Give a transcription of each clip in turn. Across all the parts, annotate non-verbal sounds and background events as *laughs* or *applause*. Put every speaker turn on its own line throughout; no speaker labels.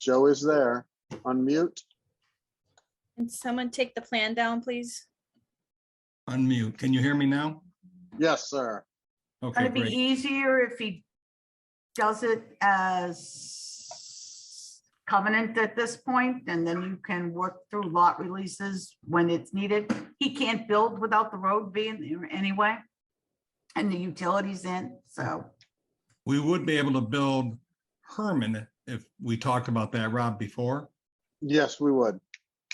Joe is there. Unmute.
Can someone take the plan down, please?
Unmute. Can you hear me now?
Yes, sir.
Okay,
It'd be e-
great.
easier if he does it as covenant at this point, and then you can work through lot releases when it's needed. He can't build without the road being there anyway, and the utilities in, so.
We would be able to build Herman if we talked about that, Rob, before.
Yes, we would.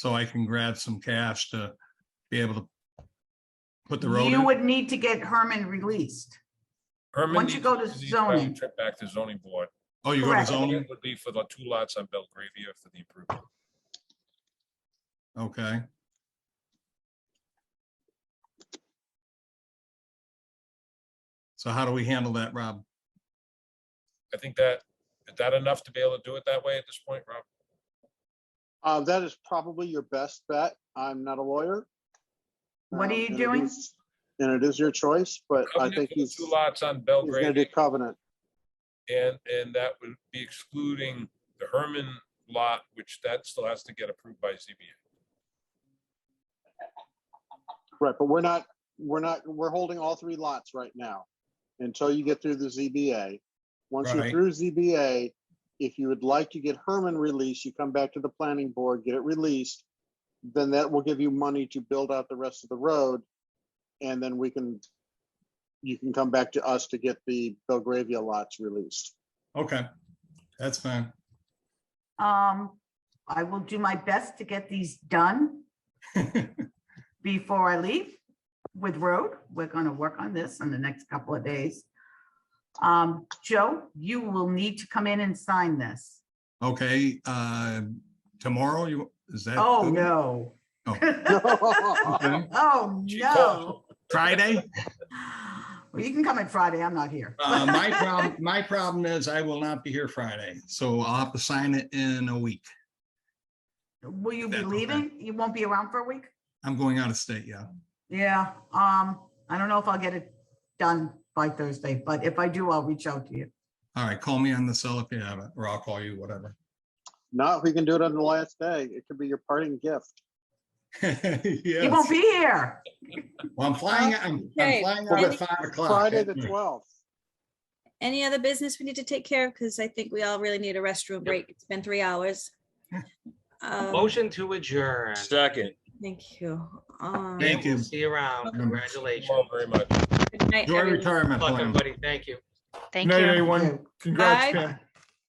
So I can grab some cash to be able to put the road
You
in.
would need to get Herman released.
Herman
Once you
needs-
go to
needs probably
zoning.
Trip back to zoning board.
Oh, you go to
correct.
zoning?
It Would be for the two lots on Belgravia for the improvement.
Okay. So how do we handle that, Rob?
I think that, is that enough to be able to do it that way at this point, Rob?
Uh, that is probably your best bet. I'm not a lawyer.
What are
Um,
you
and it
doing?
is- And it is your choice, but I
Covenant
think
for the
he's,
Two
he's
lots on
gonna do
Belgravia
covenant.
and, and that would be excluding the Herman lot, which that still has to get approved by ZBA.
Right, but we're not, we're not, we're holding all three lots right now until you get through the ZBA. Once you're
Right.
through ZBA, if you would like to get Herman released, you come back to the planning board, get it released. Then that will give you money to build out the rest of the road. And then we can, you can come back to us to get the Belgravia lots released. *laughs*
Okay, that's fine.
Um, I will do my best to get these
*laughs*
done before I leave with road. We're gonna work on this in the next couple of days. Um, Joe, you will need to come in and sign this.
Okay, uh, tomorrow, you, is that?
Oh,
good?
no.
Oh.
*laughs* Oh, no.
Friday?
Well, you can come in Friday. I'm not here.
Uh, my problem, my problem is I will not be here Friday, so I'll have to sign it in a week.
*laughs* Will you be
That's okay.
leaving? You won't be around for a week?
I'm going out of state, yeah.
Yeah, um, I don't know if I'll get it done by Thursday, but if I do, I'll reach out to you.
All right, call me on the cell if you have it, or I'll call you, whatever. *laughs*
Now, if we can do it on the last day, it could be your parting gift.
He
Yes.
won't be here.
Well, I'm flying, I'm, I'm
Okay.
flying out at five o'clock.
Friday, the twelfth.
Any other business we need to take care of? Because I think we all really need a restroom break. It's been three hours. Um,
Motion to adjourn.
Second.
Thank you. Um,
Thank you.
See you around.
Thank
Congratulations.
you all very much.
good night,
Enjoy
everyone.
retirement
Look,
plan.
everybody, thank you.
Thank you.
One,
Bye.